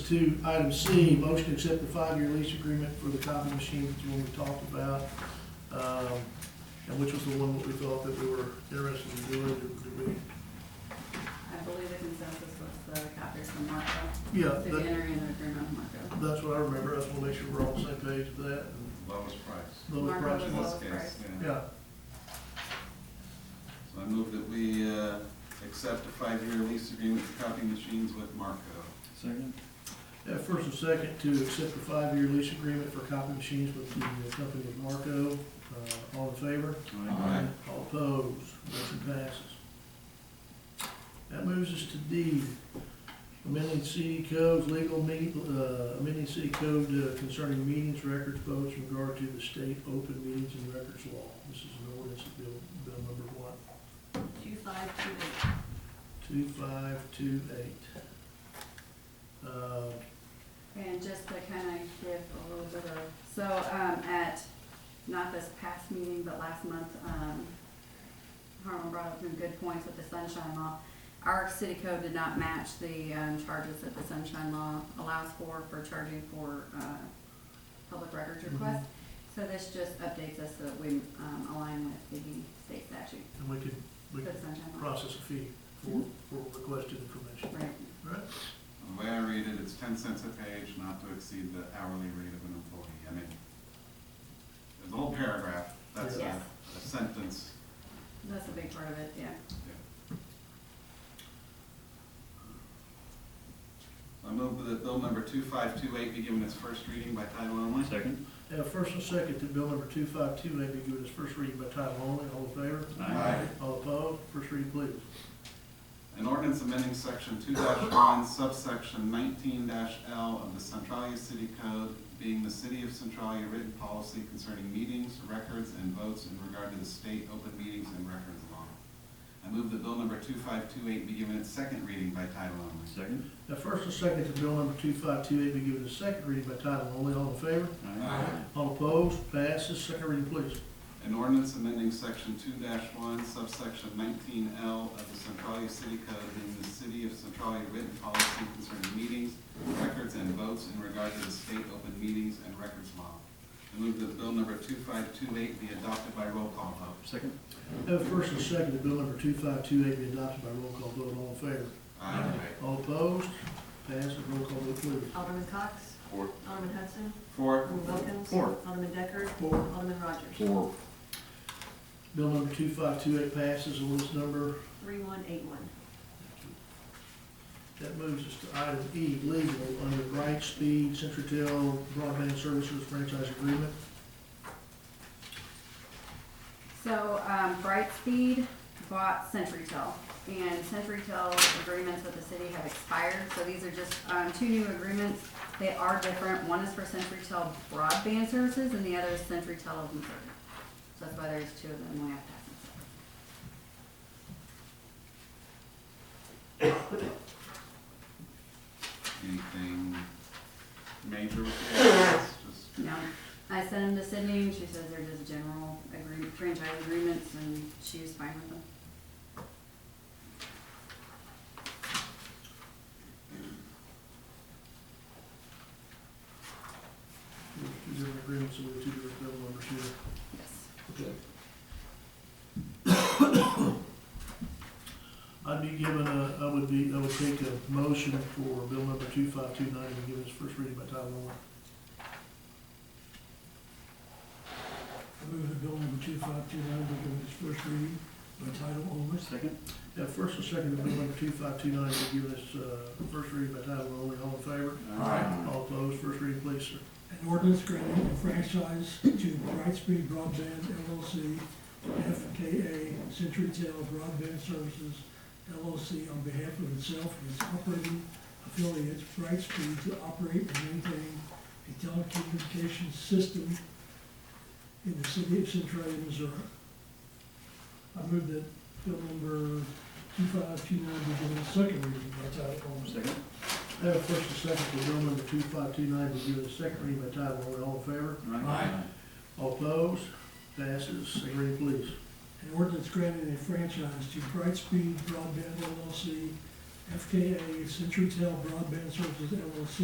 to item C, motion to accept the five-year lease agreement for the copy machine that you we talked about, um, and which was the one that we thought that we were interested in doing, Did- did we? I believe the consensus was the copiers from Marco, Yeah, to that- enter in an agreement with Marco. that's what I remember, I just wanna make sure we're all on the same page with that, and lowest price. lower Marco price. was In one. this Lowest case, price. yeah. Yeah, So I move that we uh, accept a five-year lease agreement for copy machines with Marco. Second? Yeah, first and second to accept the five-year lease agreement for copy machines with the company of Marco, uh, all in favor? Aye. All opposed, motion passes. That moves us to D, amending city codes, legal meet, uh, amending city code uh, concerning meetings, records, votes in regard to the state open meetings and records law. This is an ordinance bill, bill number one, Two five two eight, two five two eight. Uh, and just to kind of give a little bit of, so, um, at, not this past meeting, but last month, um, Harlan brought up some good points with the sunshine law. Our city code did not match the, um, charges that the sunshine law allows for, for charging for, uh, public records Mhm. requests. So this just updates us so that we, um, align with the state statute, and we could, we for the could sunshine law. process a fee for, for requested information, Right. All right? The way I read it, it's ten cents a page, not to exceed the hourly rate of an employee. I mean, there's a whole paragraph, that's a, Yes. a sentence. That's a big part of it, yeah. So I move that bill number two-five-two-eight be given its first reading by title only. Second? Now, first and second to bill number two five two eight be given its first reading by title only. All in favor? Aye. All opposed? First reading, please. An ordinance amending section two one subsection nineteen L of the Centralia City Code, being the City of Centralia written policy concerning meetings, records, and votes in regard to the state open meetings and records law. I move that bill number two five two eight be given its second reading by title only. Second? Now, first and second to bill number two five two eight be given its second reading by title only. All in favor? Aye. All opposed? Passes. Second reading, please. An ordinance amending section two one subsection nineteen L of the Centralia City Code, being the City of Centralia written policy concerning meetings, records, and votes in regard to the state open meetings and records law. I move that bill number two five two eight be adopted by roll call vote. Second? Now, first and second to bill number two five two eight be adopted by roll call vote. All in favor? Aye. All opposed? Passes. Roll call vote, please. Alderman Cox. Four. Alderman Hudson. Four. Alderman Wilkins. Four. Alderman Decker. Four. Alderman Rogers. Four. Bill number two five two eight passes. Ordinance number Three one eight one. That moves us to item E, legal, under Bright Speed, Centratel Broadband Services Franchise Agreement. So, um, Brightspeed bought CenturyTel, and CenturyTel's agreements with the city have expired, so these are just, um, two new agreements. They are different, one is for CenturyTel broadband services, and the other is CenturyTel of Missouri. So that's why there's two of them, we have to have them separate. Anything major with the ordinance? Just- No, I sent them to Sydney, and she says they're just general agreement, franchise agreements, and she was fine with them. There's two different agreements with the two different bill numbers here. Yes. Okay. I'd be given a, I would be, I would take a motion for bill number two five two nine and give its first reading by title only. I move that bill number two five two nine be given its first reading by title only. Second? Yeah, first and second, bill number two five two nine, be given its, uh, first reading by title only. All in favor? All opposed? First reading, please, sir. An ordinance granting a franchise to Brightspeed Broadband LLC, FKA CenturyTel Broadband Services LLC on behalf of itself and its operating affiliates, Brightspeed, to operate and maintain a telecommunications system in the city of Centralia, Missouri. I move that bill number two five two nine be given a second reading by title only. Second? I have a first and second for bill number two five two nine, be given its second reading by title only. All in favor? Aye. All opposed? Passes. Second reading, please. An ordinance granting a franchise to Brightspeed Broadband LLC, FKA CenturyTel Broadband Services LLC,